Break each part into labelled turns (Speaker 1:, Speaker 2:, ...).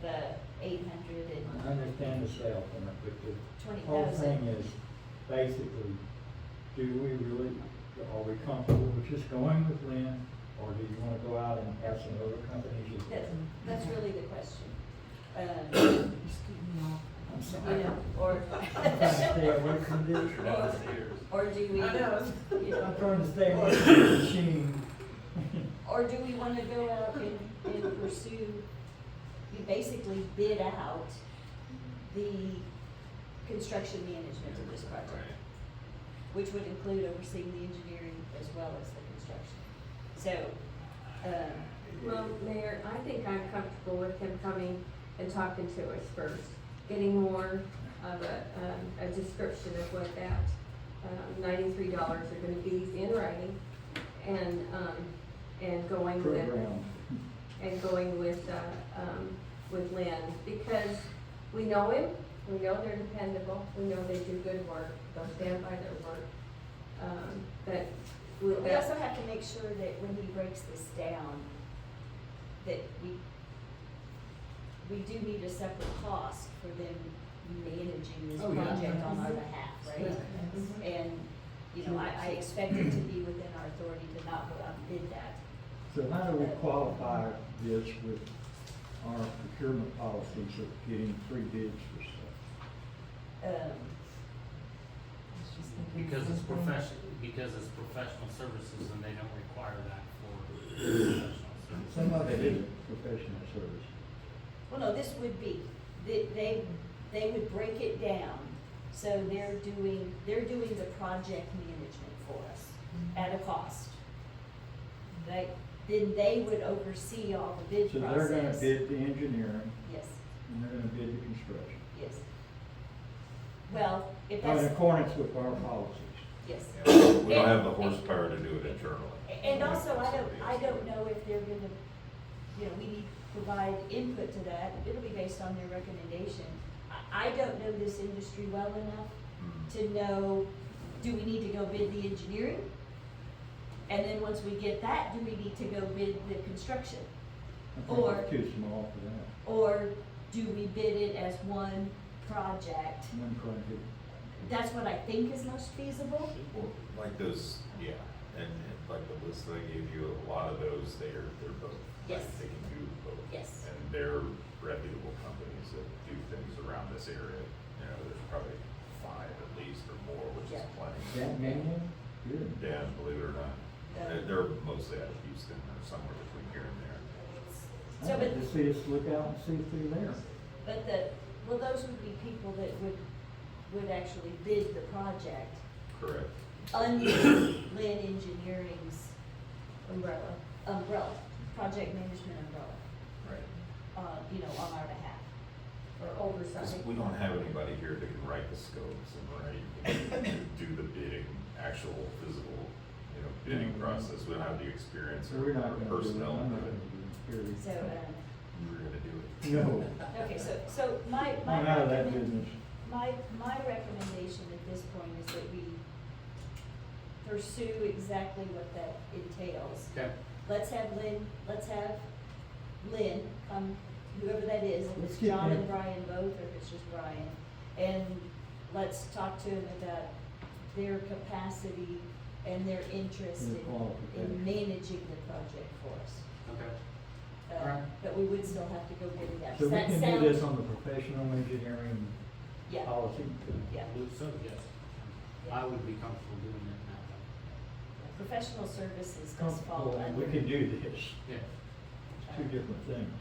Speaker 1: the eight hundred
Speaker 2: I
Speaker 1: and
Speaker 2: understand the sale permit, but
Speaker 1: twenty
Speaker 2: the whole thing
Speaker 1: thousand.
Speaker 2: is basically, do we really, are we comfortable with just going with Lynn? Or do you wanna go out and have some other companies? you-
Speaker 1: That's, that's really the question. Um,
Speaker 2: I'm
Speaker 1: you
Speaker 2: sorry.
Speaker 1: know, or.
Speaker 2: I'm trying to stay away from
Speaker 3: Turn
Speaker 2: this.
Speaker 3: out the theaters.
Speaker 1: Or do we?
Speaker 4: I know.
Speaker 1: you
Speaker 2: I'm
Speaker 1: know,
Speaker 2: trying to stay away from the machine.
Speaker 1: Or do we wanna go out and, and pursue, we basically bid out the construction management of this project?
Speaker 3: Right.
Speaker 1: which would include overseeing the engineering as well as the construction. So, um,
Speaker 4: Well, Mayor, I think I'm comfortable with him coming and talking to us first, getting more of a, um, a description of what that, um, ninety-three dollars are gonna be in writing. And, um, and going with,
Speaker 2: Program.
Speaker 4: and going with, uh, um, with Lynn, because we know him, we know they're dependable, we know they do good work, they'll stand by their work. Um, but we'll,
Speaker 1: we also have to make sure that when he breaks this down, that we, we do need a separate cost for them managing this
Speaker 2: Oh, yeah.
Speaker 1: project on our behalf, right?
Speaker 4: Mhm.
Speaker 1: And, you know, I, I expect it to be within our authority to not go out and bid that.
Speaker 2: So how do we qualify this with our procurement policies of getting three bids for stuff?
Speaker 1: Um,
Speaker 5: Because it's professional, because it's professional services and they don't require that for professional services.
Speaker 2: Some of it is professional service.
Speaker 1: Well, no, this would be, they, they, they would break it down, so they're doing, they're doing the project management for us at a cost. They, then they would oversee all the bid
Speaker 2: So they're gonna
Speaker 1: process.
Speaker 2: bid the engineering,
Speaker 1: Yes,
Speaker 2: and they're gonna bid the construction,
Speaker 1: yes. Well, if
Speaker 2: Oh, in
Speaker 1: that's,
Speaker 2: accordance with our policies.
Speaker 1: yes.
Speaker 6: We don't have the horsepower to do it internally.
Speaker 1: A- And also, I don't, I don't know if they're gonna, you know, we need to provide input to that, it'll be based on their recommendation. I, I don't know this industry well enough
Speaker 6: Mm.
Speaker 1: to know, do we need to go bid the engineering? And then once we get that, do we need to go bid the construction?
Speaker 2: I think
Speaker 1: Or-
Speaker 2: it's Too small for that,
Speaker 1: Or do we bid it as one project?
Speaker 2: one project.
Speaker 1: That's what I think is most feasible.
Speaker 6: Well, Like those, yeah, and and like the list that I gave you, a lot of those, they're, they're both. like,
Speaker 1: Yes.
Speaker 6: They can do both.
Speaker 1: Yes.
Speaker 6: And they're reputable companies that do things around this area, you know, there's probably five at least or more, which is
Speaker 1: Yeah.
Speaker 6: plenty.
Speaker 2: That many? Good.
Speaker 6: Yeah, believe it or not,
Speaker 1: Yeah.
Speaker 6: they're, they're mostly out of Houston or somewhere between here and there.
Speaker 1: So,
Speaker 2: I'd
Speaker 1: but,
Speaker 2: like to see us look out and see through there.
Speaker 1: but the, well, those would be people that would, would actually bid the project
Speaker 6: Correct.
Speaker 1: under Lynn Engineering's umbrella, umbrella, project management umbrella,
Speaker 6: Right.
Speaker 1: uh, you know, on our behalf.
Speaker 4: or
Speaker 6: Because
Speaker 4: oversight.
Speaker 6: we don't have anybody here that can write the scopes and write, and do the bidding, actual physical, you know, bidding process. We don't have the experience
Speaker 2: So
Speaker 6: or
Speaker 2: Mm-hmm. we're not
Speaker 6: or
Speaker 2: gonna do it,
Speaker 6: personnel.
Speaker 2: I'm not
Speaker 6: to do
Speaker 2: gonna
Speaker 6: it.
Speaker 2: do it,
Speaker 1: So,
Speaker 2: period.
Speaker 1: um,
Speaker 6: We're gonna do it.
Speaker 2: No,
Speaker 1: okay, so, so my, my.
Speaker 2: I'm out of that
Speaker 1: recommend-
Speaker 2: business.
Speaker 1: My, my recommendation at this point is that we pursue exactly what that entails.
Speaker 5: Okay,
Speaker 1: Let's have Lynn, let's have Lynn, um, whoever that is, if
Speaker 2: Let's
Speaker 1: it's
Speaker 2: get
Speaker 1: John and
Speaker 2: Lynn.
Speaker 1: Brian both, or if it's just Brian. And let's talk to them about their capacity and their interest
Speaker 2: And
Speaker 1: in, in
Speaker 2: qualifications.
Speaker 1: managing the project for us.
Speaker 5: okay.
Speaker 1: Uh,
Speaker 5: Alright.
Speaker 1: But we would still have to go get it out.
Speaker 2: So
Speaker 1: Does
Speaker 2: we
Speaker 1: that
Speaker 2: can
Speaker 1: sound-
Speaker 2: do this on the professional engineering
Speaker 1: Yeah,
Speaker 2: policy.
Speaker 1: yeah.
Speaker 5: I believe so, yes. I would be comfortable doing it now.
Speaker 1: Professional services does fall
Speaker 2: Comfortable, and
Speaker 1: under.
Speaker 2: Oh, we can do this,
Speaker 5: Yeah.
Speaker 2: it's two different things.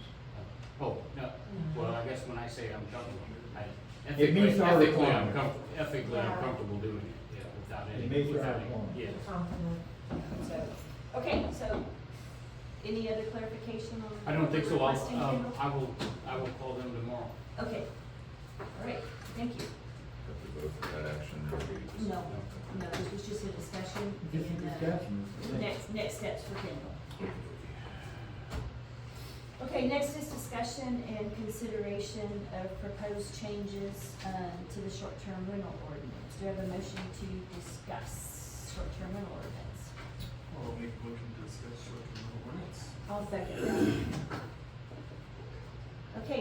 Speaker 5: Oh, no, well, I guess when I say I'm comfortable, I
Speaker 2: It
Speaker 5: ethically,
Speaker 2: meets our
Speaker 5: ethically, I'm
Speaker 2: requirements.
Speaker 5: comfortable, ethically, I'm
Speaker 7: Yeah.
Speaker 5: comfortable doing it, yeah, without any,
Speaker 2: meets our
Speaker 5: without
Speaker 2: requirements.
Speaker 5: any, yes.
Speaker 7: Confident.
Speaker 1: So, okay, so, any other clarification on?
Speaker 5: I don't think so, I'll,
Speaker 1: requesting
Speaker 5: um,
Speaker 1: Kendall?
Speaker 5: I will, I will call them tomorrow.
Speaker 1: Okay, all right, thank you.
Speaker 6: Have to vote for that action or we just-
Speaker 1: No, no, this was just a discussion
Speaker 2: Just a
Speaker 1: and, uh,
Speaker 2: discussion.
Speaker 1: next, next steps for Kendall. Okay, next is discussion and consideration of proposed changes, um, to the short-term rental ordinance. Do I have a motion to discuss short-term rental ordinance?
Speaker 3: I'll make a motion to discuss short-term rentals.
Speaker 4: I'll second that.
Speaker 1: Okay,